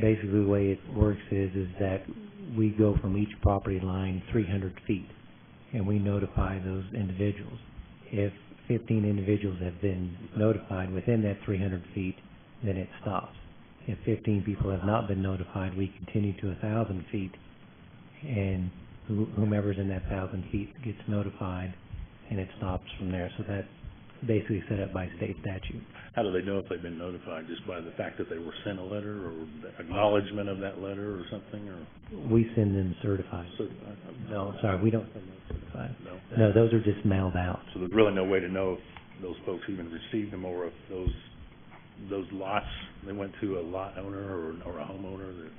basically the way it works is, is that we go from each property line three hundred feet, and we notify those individuals. If fifteen individuals have been notified within that three hundred feet, then it stops. If fifteen people have not been notified, we continue to a thousand feet, and who- whomever's in that thousand feet gets notified, and it stops from there. So that's basically set up by state statute. How do they know if they've been notified? Just by the fact that they were sent a letter or acknowledgement of that letter or something or? We send them certified. so- I- I'm- uh, No, sorry, we don't send them certified. No? No, those are just mailed out. So there's really no way to know if those folks even received them or if those, those lots, they went to a lot owner or, or a homeowner, there's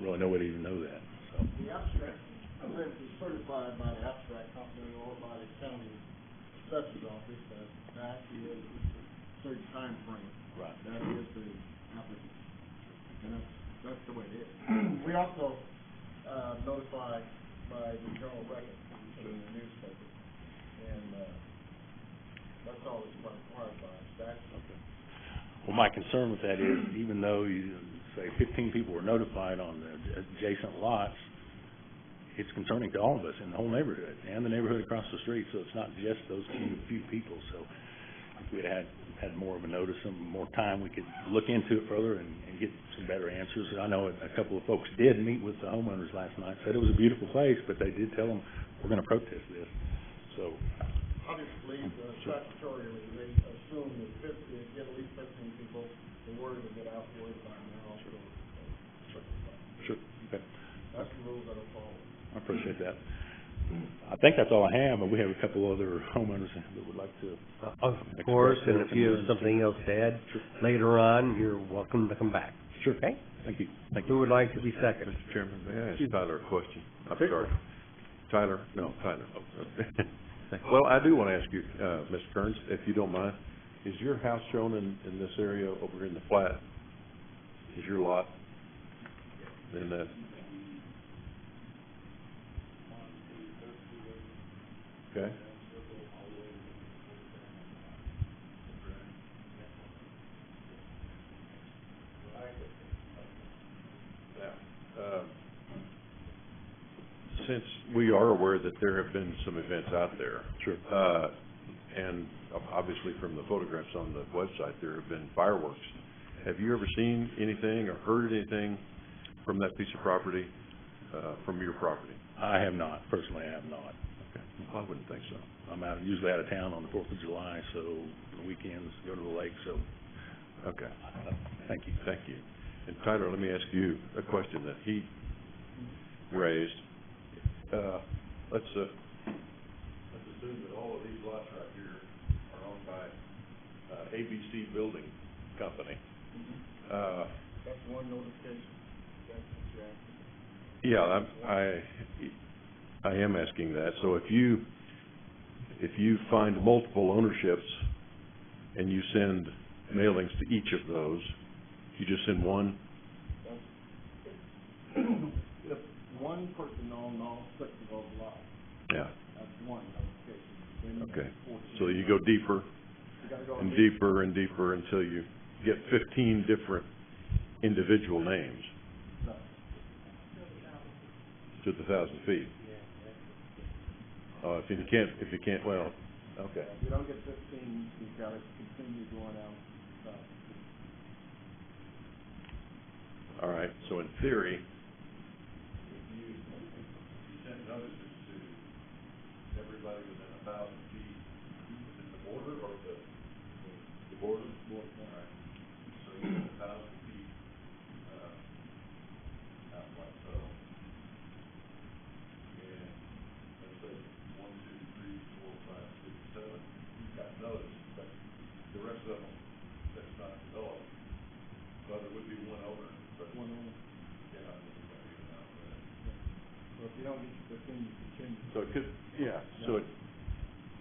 really no way to even know that, so. The abstract, I believe it's certified by the abstract company or by the county assessor's office that that is a certain timeframe. Right. That is the applicant. And that's, that's the way it is. We also, uh, notify by the general record in the newspaper. And, uh, that's all it's required by statute. Well, my concern with that is even though you say fifteen people were notified on the adjacent lots, it's concerning to all of us in the whole neighborhood and the neighborhood across the street, so it's not just those few, few people, so if we'd had, had more of a notice and more time, we could look into it further and, and get some better answers. And I know a couple of folks did meet with the homeowners last night, said it was a beautiful place, but they did tell them, we're gonna protest this, so. Obviously, uh, statutorily, they assume that fifty, get at least fifteen people, the word will get out, the word by now, so. Sure. Okay. That's the rules that are followed. I appreciate that. I think that's all I have, and we have a couple other homeowners that would like to. Of course, and if you have something else to add later on, you're welcome to come back. Sure. Okay? Thank you, thank you. Who would like to be second? Mr. Chairman, may I Excuse ask Tyler a question? I'm Sure. sorry. Tyler? No, Tyler. Well, I do want to ask you, uh, Ms. Kearns, if you don't mind, is your house shown in, in this area over in the flat? Is your lot in that? Okay. Now, um, since we are aware that there have been some events out there, Sure. uh, and ob- obviously from the photographs on the website, there have been fireworks. Have you ever seen anything or heard anything from that piece of property, uh, from your property? I have not, personally, I have not. Okay, I wouldn't think so. I'm out, usually out of town on the Fourth of July, so the weekends, go to the lake, so, Okay, uh, thank you. thank you. And Tyler, let me ask you a question that he raised. Uh, let's, uh, let's assume that all of these lots right here are owned by, uh, ABC Building Company. Uh, That's one notification. That's what you're asking. Yeah, I'm, I, I am asking that, so if you, if you find multiple ownerships and you send mailings to each of those, you just send one? If one person owned all six of those lots, Yeah, that's one notification. Then you Okay. have 14. so you go deeper You gotta go and deep. deeper and deeper until you get fifteen different individual names to the thousand feet. Uh, if you can't, if you can't, well, okay. If you don't get fifteen, you gotta continue going out. uh, All right, so in theory. If you, if you send notices to everybody within a thousand feet, within the border or the, the border? Border. All right, so you're a thousand feet, uh, out like so. And let's say one, two, three, four, five, six, seven, you've got notice, but the rest of them, that's not developed. But it would be one owner, but One owner. yeah, I think it's gonna be an outlet. So if you don't get your fifteen, you continue. So it could, yeah, so it,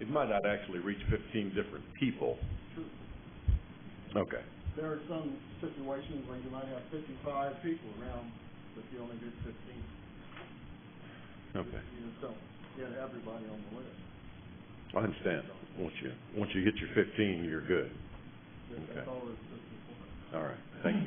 it might not actually reach fifteen different people. True. Okay. There are some situations where you might have fifty-five people around, but you only get fifteen. Okay, You just don't get everybody on the list. I understand. Once you, once you hit your fifteen, you're good. That's all it's just for. All right, thank you.